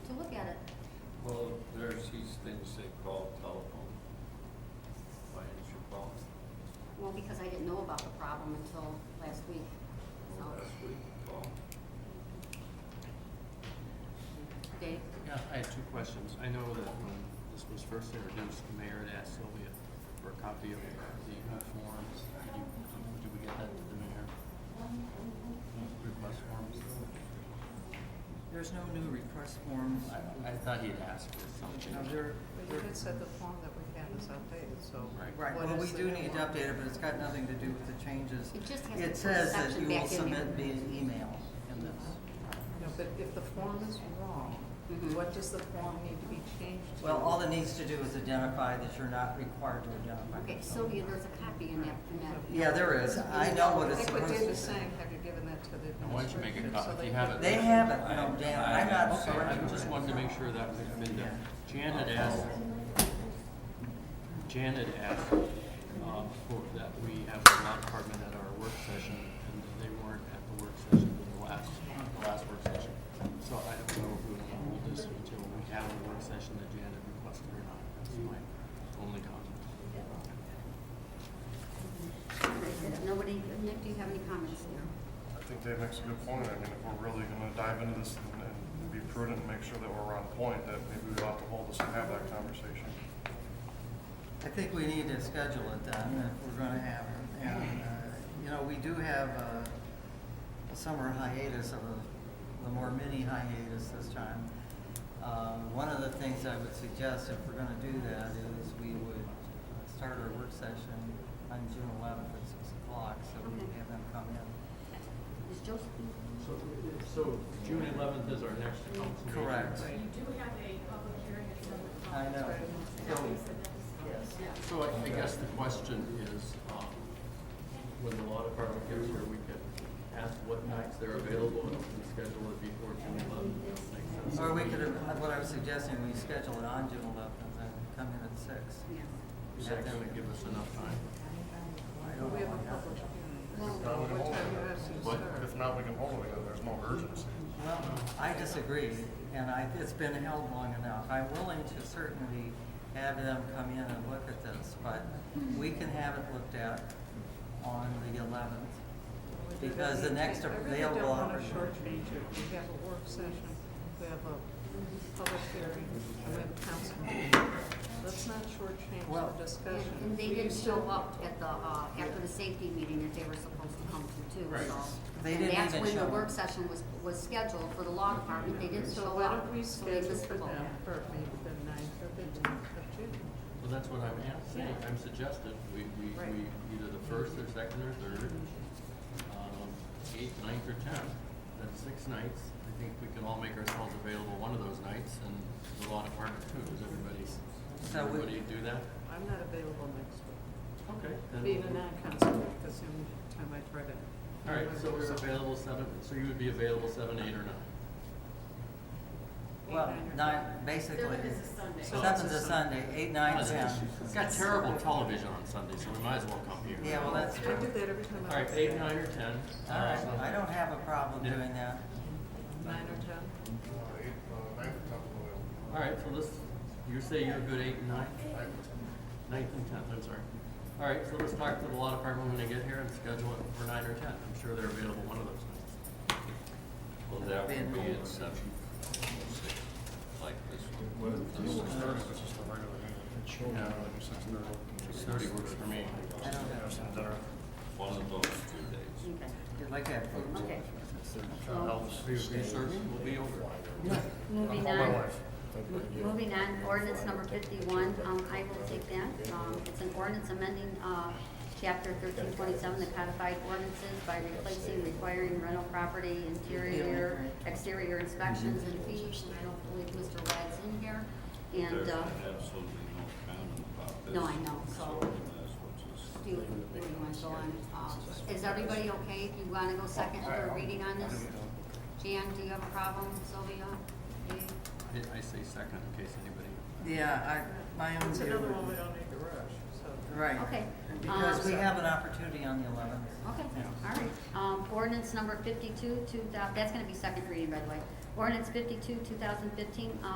say call telephone? Why didn't you call Well, because I didn't know about the problem until last week, so. last week? Call. Dave? Yeah, I had two questions. I know that when this was first introduced, the mayor had asked Sylvia for a copy of the new forms. Did you, did we get that to the mayor? Request forms? There's no new request forms. I, I thought he had asked for something. No, there, But there, you had said the form that we had is outdated, so. Right. right, what well, we is the do new need to one? update it, but it's got nothing to do with the changes. It just has to put It the says that section you back will in submit here. via email in this. No, but if the form is wrong, Mhm. what does the form need to be changed to? Mm-hmm. Well, all it needs to do is identify that you're not required to identify. Okay, yourself. Sylvia, there's a copy in that, in that. Yeah, there is. I know what it's I think what supposed Dave is to saying, be. have you given that to the administration? Why don't you make a so copy? they You have it. They haven't, no, Dan, I'm not Okay, certain. I just wanted to make sure that had been done. Jan had asked, Jan had asked, um, for, that we have the law department at our work session, and they weren't at the work session, the last, the last work session. So I don't know if we want to hold this until we have the work session that Jan had requested or not. That's my only comment. Nobody, Nick, do you have any comments there? I think Dave makes a good point. I mean, if we're really gonna dive into this and, and be prudent and make sure that we're on point, that maybe we ought to hold this and have that conversation. I think we need to schedule it then, if we're gonna have it. And, uh, you know, we do have a, a summer hiatus of a, the more mini hiatus this time. Uh, one of the things I would suggest, if we're gonna do that, is we would uh, start our work session on June eleventh at six o'clock, so we Okay. can have them come in. Is Joseph? So, so June eleventh is our next council meeting. Correct. You do have a public hearing at seven o'clock. I know. That So, makes the next- yes. So I, I guess the question is, um, when the law department gets here, we can ask what nights they're available and we can schedule it before June eleventh. Makes sense. Or we could, have- what I was suggesting, we schedule it on June eleventh and then come in at six. Yeah. Is that gonna give us enough time? I Well, don't We have know. a public hearing. Now we What can hold time you it. have to What? start? If not, we can hold it again. There's no urgency. Uh, Well, I disagree, and I, it's been held long enough. I'm willing to certainly have them come in and look at this, but we can have it looked at on the eleventh. Because the next I really don't available want to opportunity. shortchange it. We have a work session, we have a public hearing, and we have a council meeting. Let's not shortchange Well- the And discussion. and they We didn't still- show up at the, uh, after the safety meeting that they were supposed to come to too, Right. so. They And didn't that's even when the show work up. session was, was scheduled for the law department, they didn't So show why up, don't we so they schedule missed for the vote. them for maybe the ninth or the tenth of June? Well, that's what I'm ask- saying, I'm suggesting, we, we, Right. we, either the first or second or third, um, eighth, ninth, or tenth. That's six nights, I think we can all make ourselves available one of those nights, and the law department too, does everybody, does So we- everybody do that? I'm not available next week. Okay. then Being we'll- a non-council, week, that's the only time I try to. All right, so we're available seven, so you would be available seven, eight, or nine? Well, Eight, nine, or nine, ten. basically, Seventh is a Sunday. seven's a Sunday, eight, nine, ten. It's got terrible television on Sunday, so we might as well come here. Yeah, well, that's I do true. that every time All I. right, eight, nine, or ten. All right, I don't have a problem doing that. Nine or ten? Uh, eight, uh, ninth, tenth, eleventh. All right, so let's, you say you're good eight and nine? Ninth and tenth, I'm sorry. All right, so let's talk to the law department when they get here and schedule it for nine or ten. I'm sure they're available one of those nights. Well, that would Then- be at seven, six, like this one. Six thirty, which is the regular meeting. Yeah. Six thirty. Six thirty works for me. I don't Have have, some dinner. One of those two days. Okay, you'd like to have food. okay. Oh. Are you serving? We'll be over. Moving Call my on. wife. Moving on, ordinance number fifty-one, um, I will take that. Um, it's an ordinance amending, uh, chapter thirteen twenty-seven, the codified ordinances by replacing requiring rental property interior, exterior inspections and fees. And I don't believe Mr. Wag's in here. And, There's uh, absolutely no comment about this. No, I know, so- we might as well just- do you, do you want to go on? Uh, is everybody okay if you want to go second or reading on this? Jan, do you have a problem? Sylvia? Dave? I- I say second in case anybody. Yeah, I, my own It's view another one we would- don't need to rush, so. Right. Okay. Because we Um, have an opportunity on the eleventh. Okay, all right. Um, ordinance number fifty-two, two thou, that's gonna be second reading, by the way. Ordinance fifty-two, two thousand fifteen,